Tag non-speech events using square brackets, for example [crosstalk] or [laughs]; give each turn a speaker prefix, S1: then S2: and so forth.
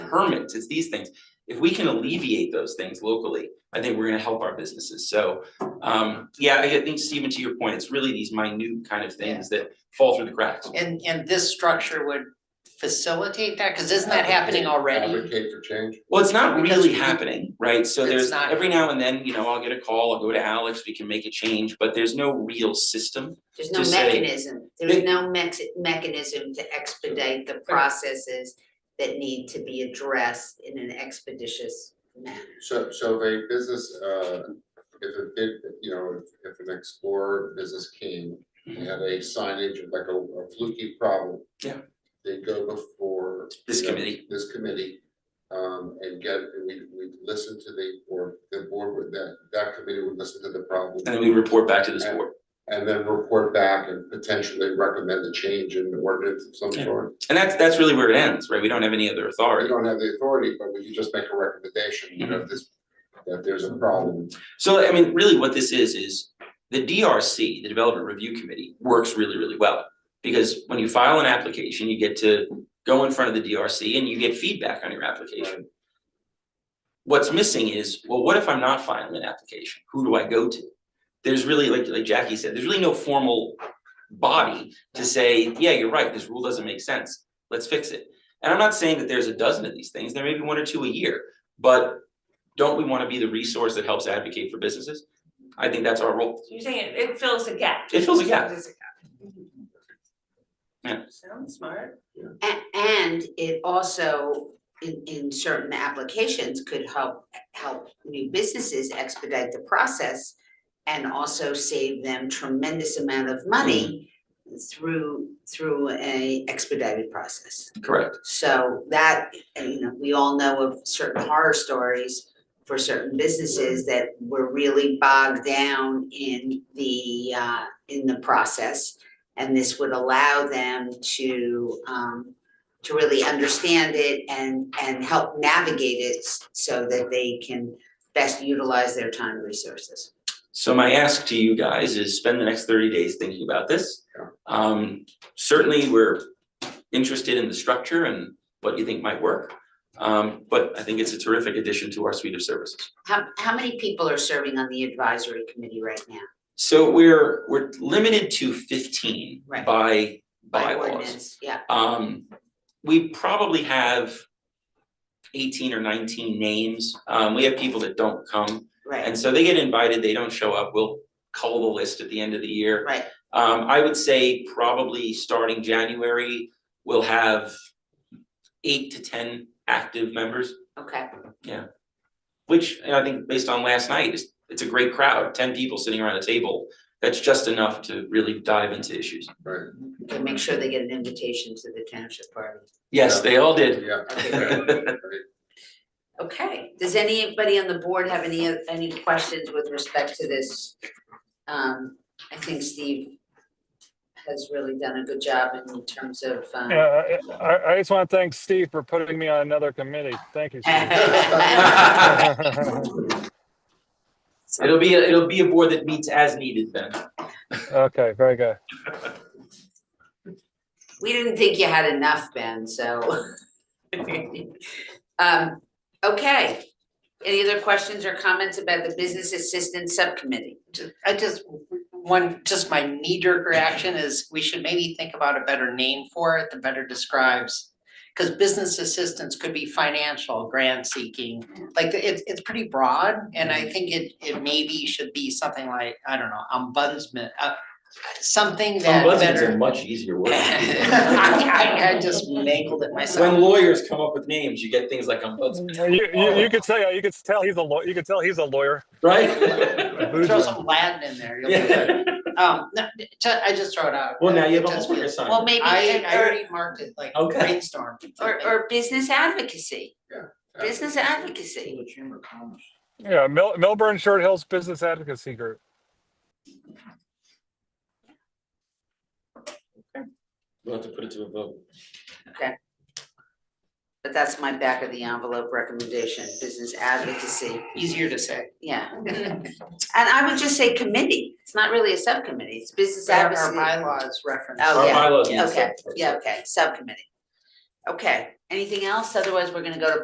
S1: permits, it's these things. If we can alleviate those things locally, I think we're gonna help our businesses, so, um, yeah, I think Stephen, to your point, it's really these minute kind of things that fall through the cracks.
S2: And and this structure would facilitate that, cause isn't that happening already?
S3: Advocate for change.
S1: Well, it's not
S2: Because
S1: really
S2: we-
S1: happening, right? So
S2: It's
S1: there's,
S2: not.
S1: every now and then, you know, I'll get a call, I'll go to Alex, we can make a change, but there's no real system.
S4: There's no
S1: to say-
S4: mechanism, there's no mex- mechanism to expedite the processes that need to be addressed in an expeditious manner.
S3: So, so if a business, uh, if a bid, you know, if- if an explorer business came and had a signage like a a fluky problem.
S1: Yeah.
S3: They go before.
S1: This
S3: you know,
S1: committee.
S3: This committee, um, and get, and we, we listen to the, board. the board would, that, that committee would listen to the problem.
S1: And then we report back to this board.
S3: And then report back and potentially recommend a change in the ordinance of some
S1: Yeah.
S3: sort.
S1: And that's, that's really where it ends, right? We don't have any other
S3: We
S1: authority.
S3: don't have the authority, but we can just make a recommendation, you know, this, that there's a problem.
S1: So, I mean, really what this is, is the DRC, the Development Review Committee, works really, really well. Because when you file an application, you get to go in front of the DRC and you get feedback on your application. What's missing is, well, what if I'm not filing an application? Who do I go to? There's really, like, like Jackie said, there's really no formal body to say, yeah, you're right, this rule doesn't make sense, let's fix it. And I'm not saying that there's a dozen of these things, there may be one or two a year, but don't we wanna be the resource that helps advocate for businesses? I think that's our role.
S5: You're saying it- it fills a gap.
S1: It fills a gap.
S5: Fills
S1: Yeah.
S5: Sounds smart.
S4: A- and it also in in certain applications could help help new businesses expedite the process and also save them tremendous amount of
S1: Mm.
S4: money through through a expedited process.
S1: Correct.
S4: So that, and, you know, we all know of certain horror stories for certain businesses that were really bogged down in the uh in the process. And this would allow them to um to really understand it and and help navigate it s- so that they can best utilize their time and resources.
S1: So my ask to you guys is spend the next thirty days thinking about this.
S3: Yeah.
S1: Um, certainly, we're interested in the structure and what you think might work. Um, but I think it's a terrific addition to our suite of services.
S4: How how many people are serving on the advisory committee right now?
S1: So we're, we're limited to fifteen
S4: Right.
S1: by
S4: By
S1: bylaws.
S4: ordinance, yeah.
S1: Um, we probably have eighteen or nineteen names. Um, we have people that don't come.
S4: Right,
S1: And so they get invited, they don't show up. We'll cull the list at the end of the year.
S4: right,
S1: Um, I would say probably starting January, we'll have eight to ten active members,
S4: okay.
S1: which you know, I think based on last night, is it's a great crowd, ten people sitting around a table. That's just enough to really dive into issues.
S4: And make sure they get an invitation to the township party.
S1: Yes, they all did.
S3: Yeah.
S4: Okay, Okay. does anybody on the board have any, any questions with respect to this? Um, I think Steve has really done a good job in terms of, um,
S6: Yeah, Uh, I- I, I just want to thank Steve for putting me on another committee. Thank you,
S4: [laughs]
S6: Steve.
S1: It'll be, a- it'll be a board that meets as needed then.
S6: Okay, very good.
S4: we didn't think you had enough, Ben, so. [laughs] Um, okay, any other questions or comments about the business assistance subcommittee?
S2: Ju- I just, one, just my knee jerk reaction is we should maybe think about a better name for it that better describes. Cause business assistance could be financial, grant seeking, like it's it's pretty broad and I think it it maybe should be something like, I don't know, ombudsman, uh. Something that
S1: Ombudsman's a
S2: better.
S1: much easier
S4: [laughs]
S1: word.
S2: [laughs] I I I just mangled it myself.
S1: When lawyers come up with names, you get things like ombudsman,
S6: You, you, you could say, you could tell he's a lawyer, you could tell he's a lawyer.
S4: [laughs]
S1: right? [laughs]
S2: Throw some Latin in there, you'll be good. Um, no, ju- I just throw it out.
S1: Well, now you have a
S2: Just-
S1: whole lawyer sign.
S4: Well, maybe,
S2: I, I
S4: or,
S2: already marked it like
S1: Okay.
S2: brainstorm.
S4: or, or business advocacy, business advocacy.
S6: Yeah, Mil- Milburn Short Hills Business Advocacy Group.
S1: We'll have to put it to a vote.
S4: But that's my back of the envelope recommendation, business advocacy,
S2: Easier to say.
S4: yeah. And I would just say committee, it's not really a subcommittee, it's business
S2: Our
S4: advocacy.
S2: our bylaws reference.
S4: Oh,
S1: Our
S4: yeah.
S1: bylaws need to
S4: Okay,
S1: set-
S4: yeah, okay, subcommittee. Okay, anything else? Otherwise, we're gonna go to